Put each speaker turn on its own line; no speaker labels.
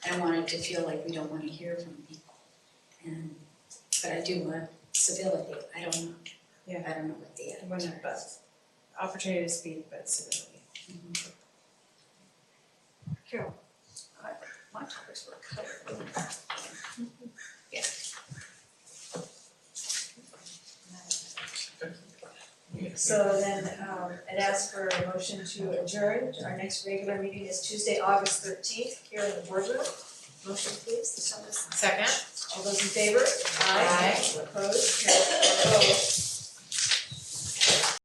I don't want it to feel like we don't wanna hear from people. And, but I do want civility, I don't know.
Yeah.
I don't know what the
When,
others are.
but, opportunity to speak, but civility.
Carol, I- my topics were covered. Yeah.
So then, um, it asks for a motion to adjourn, our next regular meeting is Tuesday, August thirteenth, here in the boardroom. Motion please,
Second?
all those in favor? Opposed? Carried.